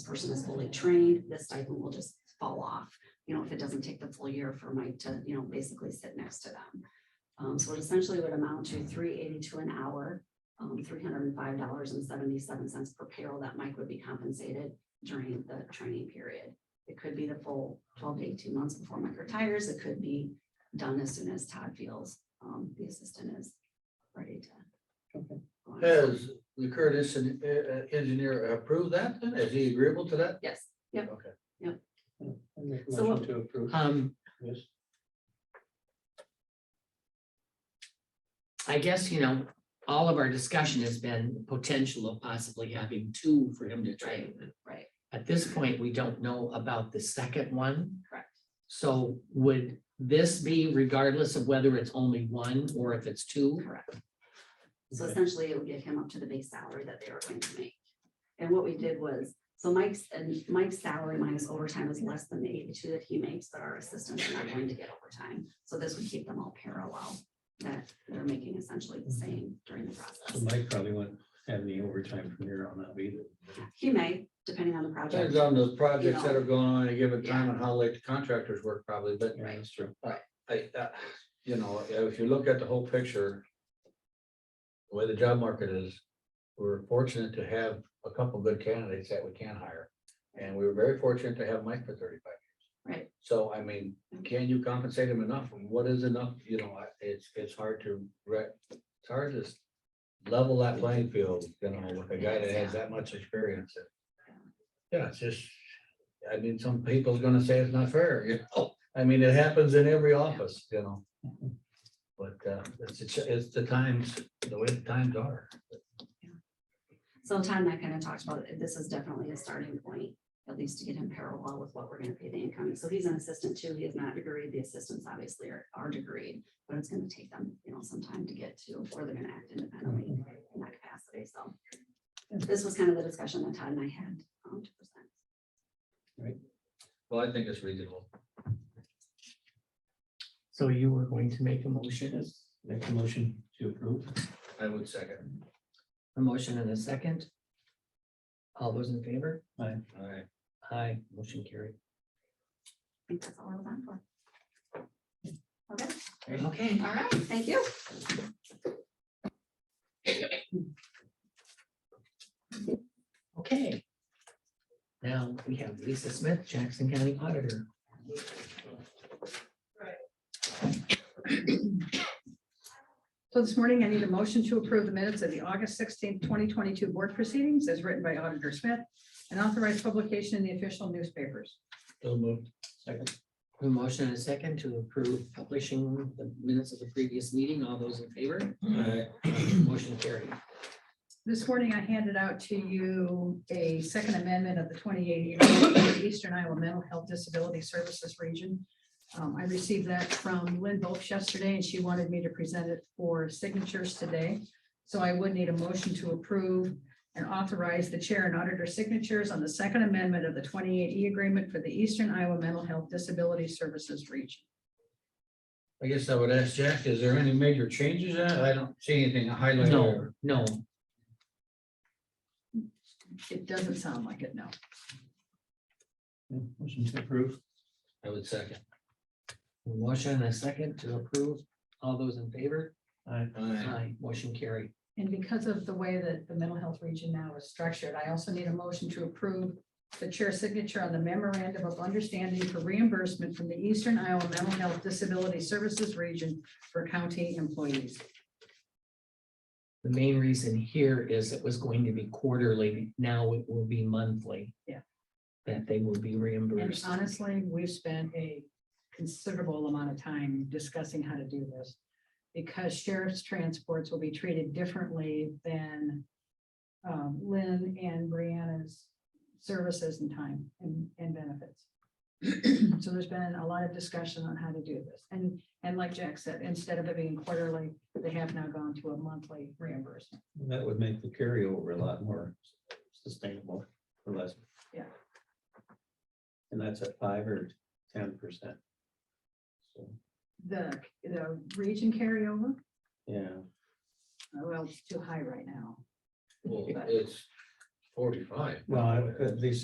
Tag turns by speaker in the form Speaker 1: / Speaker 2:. Speaker 1: person is fully trained, this stipend will just fall off. You know, if it doesn't take the full year for Mike to, you know, basically sit next to them. Um, so it essentially would amount to three eighty-two an hour, um, three hundred and five dollars and seventy-seven cents per payroll that Mike would be compensated during the training period. It could be the full twelve to eighteen months before Mike retires. It could be done as soon as Todd feels, um, the assistant is ready to.
Speaker 2: Okay.
Speaker 1: go on.
Speaker 3: Has the Curtis en- eh, eh, engineer approved that? then? Is he agreeable to that?
Speaker 1: Yes, yep.
Speaker 3: Okay.
Speaker 2: I make a
Speaker 1: So
Speaker 2: motion
Speaker 1: what-
Speaker 2: to approve.
Speaker 4: Um,
Speaker 2: Yes.
Speaker 4: I guess, you know, all of our discussion has been potential of possibly having two for him to train.
Speaker 1: right,
Speaker 4: At this point, we don't know about the second one.
Speaker 1: correct.
Speaker 4: So would this be regardless of whether it's only one or if it's two?
Speaker 1: Correct. So
Speaker 2: Okay.
Speaker 1: essentially it would get him up to the base salary that they were going to make. And what we did was, so Mike's, and Mike's salary minus overtime is less than the eighty-two that he makes, but our assistants are not going to get overtime. So this would keep them all parallel, that they're making essentially the
Speaker 3: Mm-hmm.
Speaker 1: same during the
Speaker 2: So
Speaker 1: process.
Speaker 2: Mike probably wouldn't have any overtime from here on out either.
Speaker 1: He may, depending on the
Speaker 3: Depends
Speaker 1: project.
Speaker 3: on the projects that are going on at a given time and how late the contractors work probably, but
Speaker 2: Yeah, that's true.
Speaker 3: I, uh, you know, if you look at the whole picture. The way the job market is, we're fortunate to have a couple good candidates that we can hire. And we were very fortunate to have Mike for thirty-five years.
Speaker 1: Right.
Speaker 3: So I mean, can you compensate him enough? And What is enough? You know, I- it's, it's hard to, re- it's hard to. s- Level that playing field, you know, with a guy that has that much experience. Yeah, it's just, I mean, some people's gonna say it's not fair, you know? I mean, it happens in every office, you know? But uh, it's, it's- it's the times, the way the times are.
Speaker 1: So Todd and I kind of talked about, it. this is definitely a starting point, at least to get him parallel with what we're gonna pay the incoming. So he's an assistant too. He is not degreed. The assistants obviously are, are degreed, but it's gonna take them, you know, some time to get to, or they're gonna act independently in that capacity. So this was kind of the discussion that Todd and I had. um, to present.
Speaker 3: Well, I think it's reasonable.
Speaker 4: So you were going to make a motion, is
Speaker 2: Make a motion to approve.
Speaker 3: I would second.
Speaker 4: a motion and a second? All those in favor?
Speaker 3: All right.
Speaker 4: Aye, motion carried.
Speaker 1: I think that's all I was on for. Okay,
Speaker 4: Okay.
Speaker 1: all right, thank you.
Speaker 4: Okay. Now we have Lisa Smith, Jackson County Auditor.
Speaker 5: So this morning, I need a motion to approve the minutes of the August sixteenth, twenty twenty-two board proceedings as written by Auditor Smith and authorized publication in the official newspapers.
Speaker 3: So moved.
Speaker 2: Second.
Speaker 4: A motion and a second to approve publishing the minutes of the previous meeting. All those in favor? Motion carried.
Speaker 5: This morning, I handed out to you a second amendment of the twenty-eight Agreement Eastern Iowa Mental Health Disability Services Region. Um, I received that from Lynn Volk yesterday, and she wanted me to present it for signatures today. So I would need a motion to approve and authorize the chair and auditor signatures on the second amendment of the twenty-eight E agreement for the Eastern Iowa Mental Health Disability Services Region.
Speaker 3: I guess I would ask Jack, is there any major changes? in it? I don't see anything highlighted.
Speaker 4: No, no,
Speaker 5: It doesn't sound like it, no.
Speaker 2: Yeah, Motion to approve.
Speaker 3: I would second.
Speaker 4: A motion and a second to approve. All those in favor?
Speaker 2: Aye.
Speaker 3: Aye.
Speaker 4: Aye, motion carried.
Speaker 5: And because of the way that the mental health region now is structured, I also need a motion to approve the chair's signature on the memorandum of understanding for reimbursement from the Eastern Iowa Mental Health Disability Services Region for county employees.
Speaker 4: The main reason here is it was going to be quarterly. Now it will be monthly.
Speaker 5: Yeah.
Speaker 4: That they will be
Speaker 5: And uh,
Speaker 4: reimbursed.
Speaker 5: honestly, we've spent a considerable amount of time discussing how to do this. Because sheriff's transports will be treated differently than um, Lynn and Brianna's services and time and, and benefits. So there's been a lot of discussion on how to do this. And, and like Jack said, instead of it being quarterly, they have now gone to a monthly reimbursement.
Speaker 2: That would make the carryover a lot more sustainable for less.
Speaker 5: Yeah.
Speaker 2: And that's at five or ten percent. So,
Speaker 5: The, the region carryover,
Speaker 2: yeah,
Speaker 5: well, it's too high right now.
Speaker 3: Well, it's forty-five.
Speaker 2: well, at least